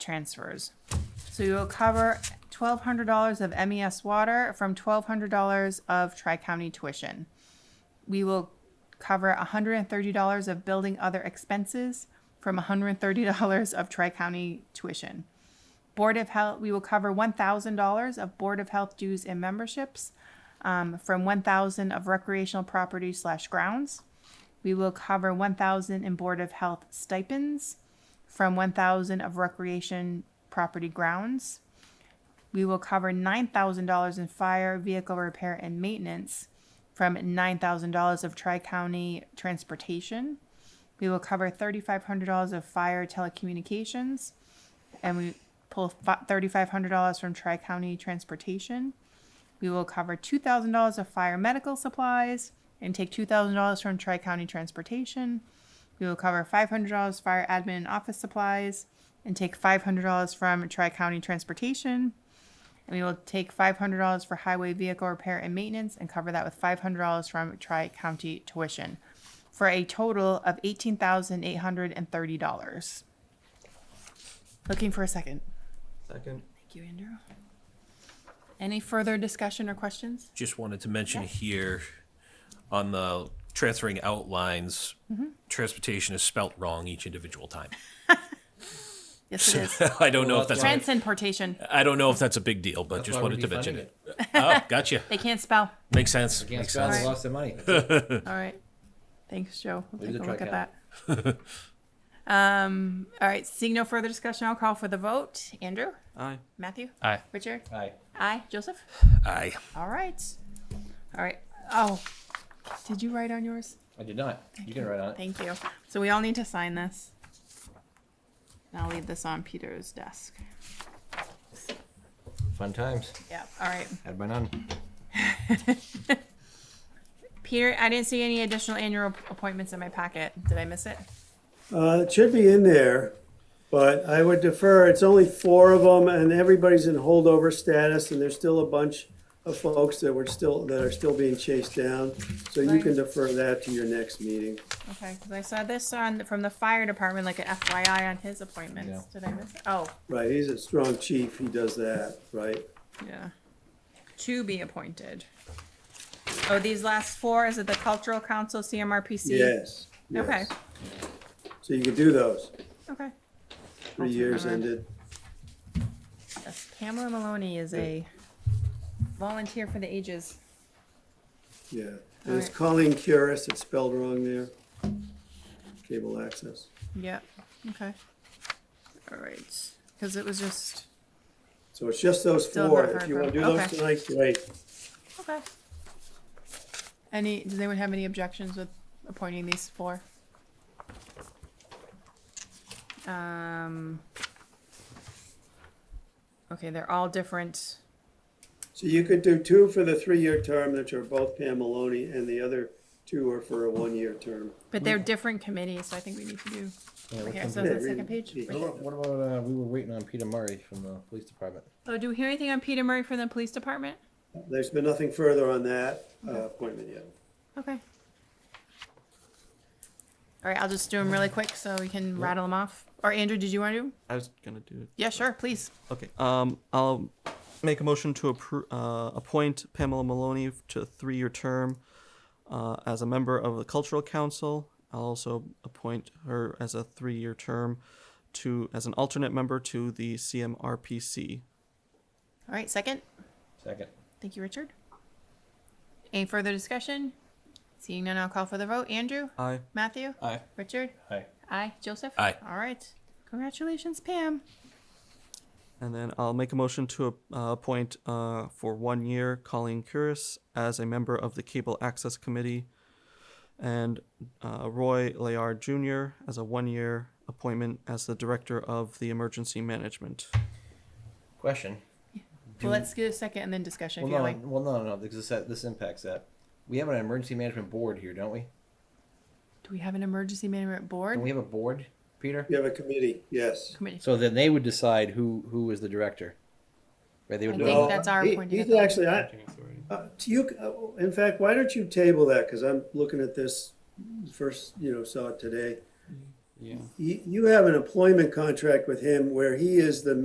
transfers. So you will cover twelve hundred dollars of MES water from twelve hundred dollars of tri-county tuition. We will cover hundred and thirty dollars of building other expenses from hundred and thirty dollars of tri-county tuition. Board of Health, we will cover one thousand dollars of Board of Health dues and memberships um, from one thousand of recreational property slash grounds. We will cover one thousand in Board of Health stipends from one thousand of recreation property grounds. We will cover nine thousand dollars in fire vehicle repair and maintenance from nine thousand dollars of tri-county transportation. We will cover thirty-five hundred dollars of fire telecommunications, and we pull thirty-five hundred dollars from tri-county transportation. We will cover two thousand dollars of fire medical supplies and take two thousand dollars from tri-county transportation. We will cover five hundred dollars fire admin and office supplies and take five hundred dollars from tri-county transportation. And we will take five hundred dollars for highway vehicle repair and maintenance and cover that with five hundred dollars from tri-county tuition for a total of eighteen thousand eight hundred and thirty dollars. Looking for a second. Second. Thank you, Andrew. Any further discussion or questions? Just wanted to mention here on the transferring out lines, transportation is spelt wrong each individual time. Yes, it is. I don't know if Well, that's, that's Transportation. I don't know if that's a big deal, but That's just why we're wanted to mention defunding it. Oh, gotcha. They can't spell. Makes sense. Can't Makes spell, sense. they Right. lost their money. All right. Thanks, Joe. We'll Leave take a the look at tricaster. that. Um, all right, seeing no further discussion, I'll call for the vote. Andrew? Aye. Matthew? Aye. Richard? Aye. Aye. Joseph? Aye. All right. All right. Oh, did you write on yours? I did not. You can write on it. Thank you. So we all need to sign this. And I'll leave this on Peter's desk. Fun times. Yeah, all right. Had by none. Peter, I didn't see any additional annual appointments in my packet. Did I miss it? Uh, it should be in there, but I would defer. It's only four of them, and everybody's in holdover status, and there's still a bunch of folks that were still that are still being chased down. So you Right. can defer that to your next meeting. Okay, because I saw this on, from the fire department, like an FYI on his appointments. Yeah. Did I miss it? Oh, Right? He's a strong chief. He does that, right? yeah. To be appointed. Oh, these last four, is it the cultural council, CMRPC? Yes. yes. Okay, So you can do those. okay. Three years Alright. ended. Yes, Pamela Maloney is a volunteer for the ages. Yeah. And it's Alright. Colleen Curis. It's spelled wrong there. Cable access. Yep, okay. All right, because it was just, So it's just those Still four. not If you heard want to do from. those Okay. tonight, great. okay. Any, does anyone have any objections with appointing these four? Um. Okay, they're all different. So you could do two for the three-year term that are both Pam Maloney, and the other two are for a one-year term. But they're different committees, so I think we need to do, okay, so committee? the second page. Yeah. right here. What about, uh, we were waiting on Peter Murray from the police department. Oh, do we hear anything on Peter Murray from the police department? There's been nothing further on that uh, appointment yet. Okay. All right, I'll just do them really quick so we can rattle them off. Or Andrew, did you want to? I was gonna do it. Yeah, sure, please. Okay. Um, I'll make a motion to appro- uh, appoint Pamela Maloney to a three-year term uh, as a member of the Cultural Council. I'll also appoint her as a three-year term to as an alternate member to the CMRPC. All right, second. Second. Thank you, Richard. Any further discussion? Seeing none, I'll call for the vote. Andrew, Aye. Matthew, Aye. Richard, Aye. aye. Joseph, Aye. All right, congratulations, Pam. And then I'll make a motion to uh, appoint uh, for one year Colleen Curis as a member of the Cable Access Committee and uh, Roy Layard Jr. as a one year appointment as the Director of the Emergency Management. Question. Well, let's get a second and then discussion Well, if you no, like. well, no, no, because this, this impacts that. We have an emergency management board here, don't we? Do we have an emergency management Don't board? we have a board, Peter? You have a committee, yes. Committee. So then they would decide who, who is the director. Right, they would I do think it. that's our he- appointed he's authority. Actually, I, uh, do you, uh, in fact, why don't you table that, because I'm looking at this first, you know, saw it today. yeah. Mm-hmm. You, you have an employment contract with him where he is the